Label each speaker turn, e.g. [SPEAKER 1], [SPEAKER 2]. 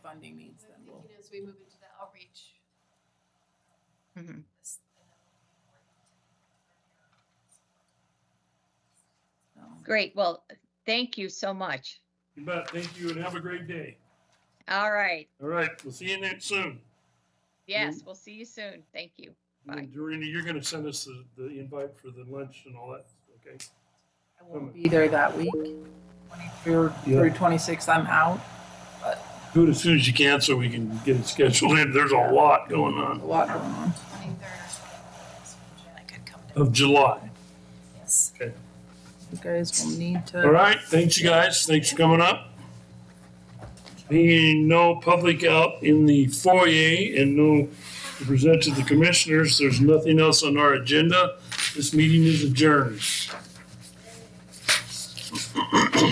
[SPEAKER 1] funding needs, then
[SPEAKER 2] I'm
[SPEAKER 1] we'll.
[SPEAKER 2] thinking as we move into the outreach.
[SPEAKER 3] Mhm.
[SPEAKER 2] this-
[SPEAKER 1] um,
[SPEAKER 3] Great. Well, thank you so much.
[SPEAKER 4] You bet. Thank you and have a great day.
[SPEAKER 3] All right.
[SPEAKER 4] All right, we'll see you next soon.
[SPEAKER 3] Yes, we'll see you soon. Thank you.
[SPEAKER 4] And then, Dorinda, you're gonna send us the, the invite for the lunch and all that, okay?
[SPEAKER 1] Um, I won't be there that week, twenty-third through twenty-sixth, I'm out,
[SPEAKER 4] Do it as soon as you can so we can get it scheduled in. There's a lot going
[SPEAKER 1] a
[SPEAKER 4] on
[SPEAKER 1] lot going on.
[SPEAKER 2] 23rd or 24th. I could come to
[SPEAKER 4] of July.
[SPEAKER 2] this.
[SPEAKER 1] You guys will need
[SPEAKER 4] All
[SPEAKER 1] to,
[SPEAKER 4] right, thanks you guys. Thanks for coming up. Being no public out in the foyer and no to present to the commissioners, there's nothing else on our agenda. This meeting is adjourned.